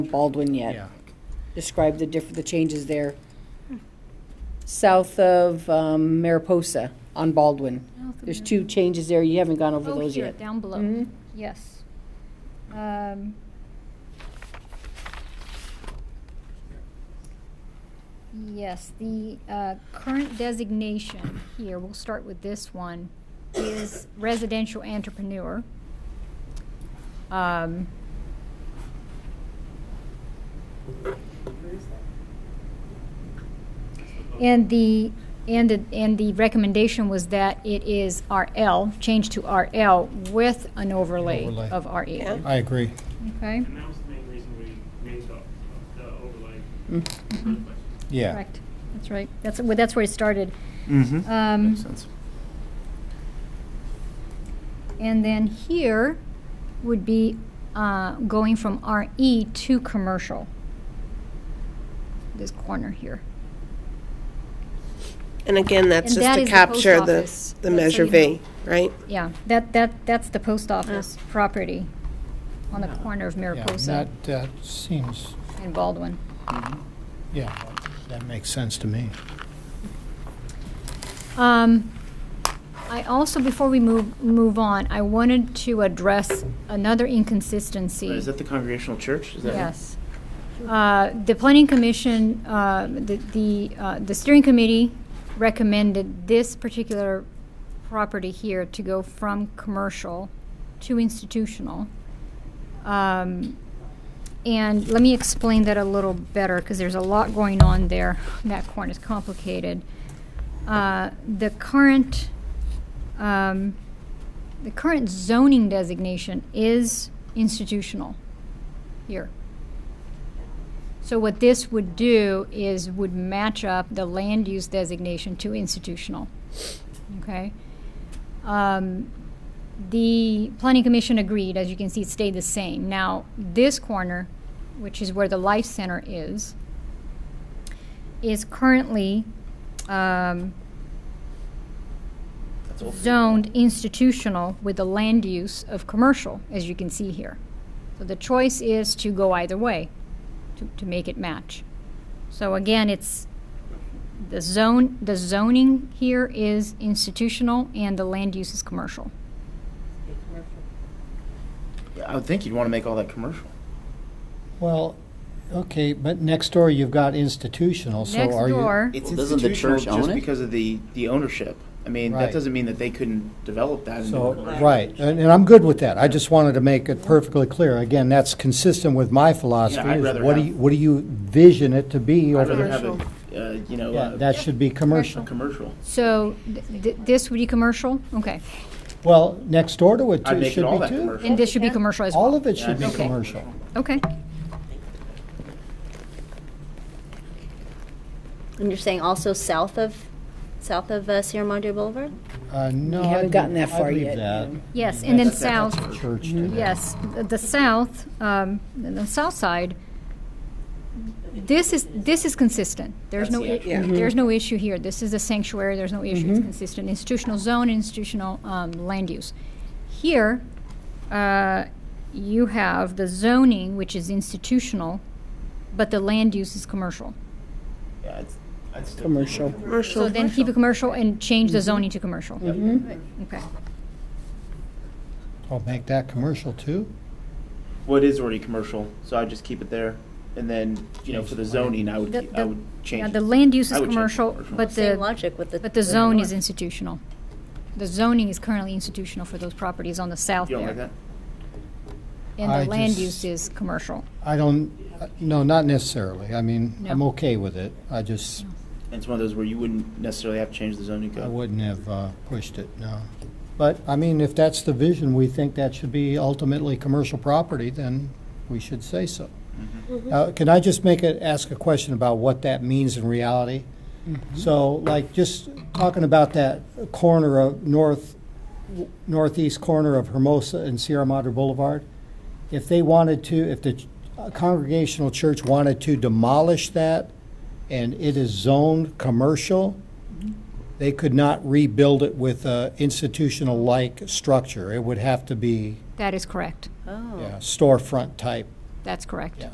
Baldwin yet. Yeah. Describe the diff, the changes there. South of um, Mariposa on Baldwin. There's two changes there. You haven't gone over Oh, those here, yet. down below, Mhm. yes. Um, Yes, the uh, current designation here, we'll start with this one, is residential entrepreneur. Um, And the, and the, and the recommendation was that it is RL, changed to RL with an overlay Overlay. of RE. I agree. Okay? And that was the main reason we made the, the overlay. Mm. Hmm, Mhm. Yeah. Correct, that's right. That's, well, that's where it started. Mm-hmm. Um, Makes sense. And then here would be uh, going from RE to commercial. This corner here. And again, that's And just that to is the post capture the, office, the just so Measure you know. V, right? Yeah, that, that, that's the post office property on the corner of Yeah, Mariposa that, that seems, and Baldwin. yeah, that makes sense to me. Um, I also, before we move, move on, I wanted to address another inconsistency. Is that the congregational church? Is that Yes. Uh, The Planning Commission, uh, the, the uh, the steering committee recommended this particular property here to go from commercial to institutional. Um, And let me explain that a little better, because there's a lot going on there. That corner is complicated. Uh, The current, um, the current zoning designation is institutional here. So what this would do is would match up the land use designation to institutional. Okay? Um, the planning commission agreed, as you can see, it stayed the same. Now, this corner, which is where the life center is, is currently um, That's all- zoned institutional with the land use of commercial, as you can see here. So the choice is to go either way, to, to make it match. So again, it's, the zone, the zoning here is institutional and the land use is commercial. I would think you'd want to make all that commercial. Well, okay, but next door you've got institutional, so Next are you? door, Well, doesn't the church own just because of the, the ownership. I mean, Right. that doesn't mean that they couldn't develop that. into So, a commercial. right, and, and I'm good with that. I just wanted to make it perfectly clear. Again, that's consistent with my philosophy. I'd is rather What do have- you, what do you vision it to be? I'd over rather the- have a, uh, you know, Yeah, a, that should be a commercial. commercial. so th- th- this would be commercial? Okay. Well, next door to it I'd too make it should all be that too. commercial. And this should be commercial as well? All of it Yeah, should I'd be make it commercial. Okay. And you're saying also south of, south of uh, Sierra Madre Boulevard? Uh, no. We haven't I'd gotten leave- that far I'd leave yet, that. Yes, and then That's- that's- south, Church to that. Yes, the- the south, um, the south side, this is, this is consistent. There's That's no, the i- idea. there's no issue here. This is a sanctuary, there's no issue. It's consistent institutional zone, institutional um, land use. Here, uh, you have the zoning, which is institutional, but the land use is commercial. Yeah, it's, I'd still Commercial. So then keep it commercial and change the zoning to commercial. Okay. I'll make that commercial too. Well, it is already commercial, so I'd just keep it there. And then, you know, for the zoning, I would, The- keep- I the- would Yeah, change the it. land use I is would change commercial, commercial. but the. Same logic with the. But the zone north. is institutional. The zoning is currently institutional for those properties on the south You don't like there. that? And I the land just- use is commercial. I don't, uh, no, not necessarily. I mean, I'm No. okay with it. I just, And it's one of those where you wouldn't necessarily have to change the zoning I code. wouldn't have uh, pushed it, no. But, I mean, if that's the vision, we think that should be ultimately commercial property, then we should say so. Uh, Can I just make a, ask a question about what that means in reality? So, like, just talking about that corner of north, northeast corner of Hermosa and Sierra Madre Boulevard, if they wanted to, if the ch- uh, Congregational Church wanted to demolish that and it is zoned commercial, they could not rebuild it with a institutional-like structure. It would have to be That is correct. Oh. yeah, storefront type. That's correct. Yeah.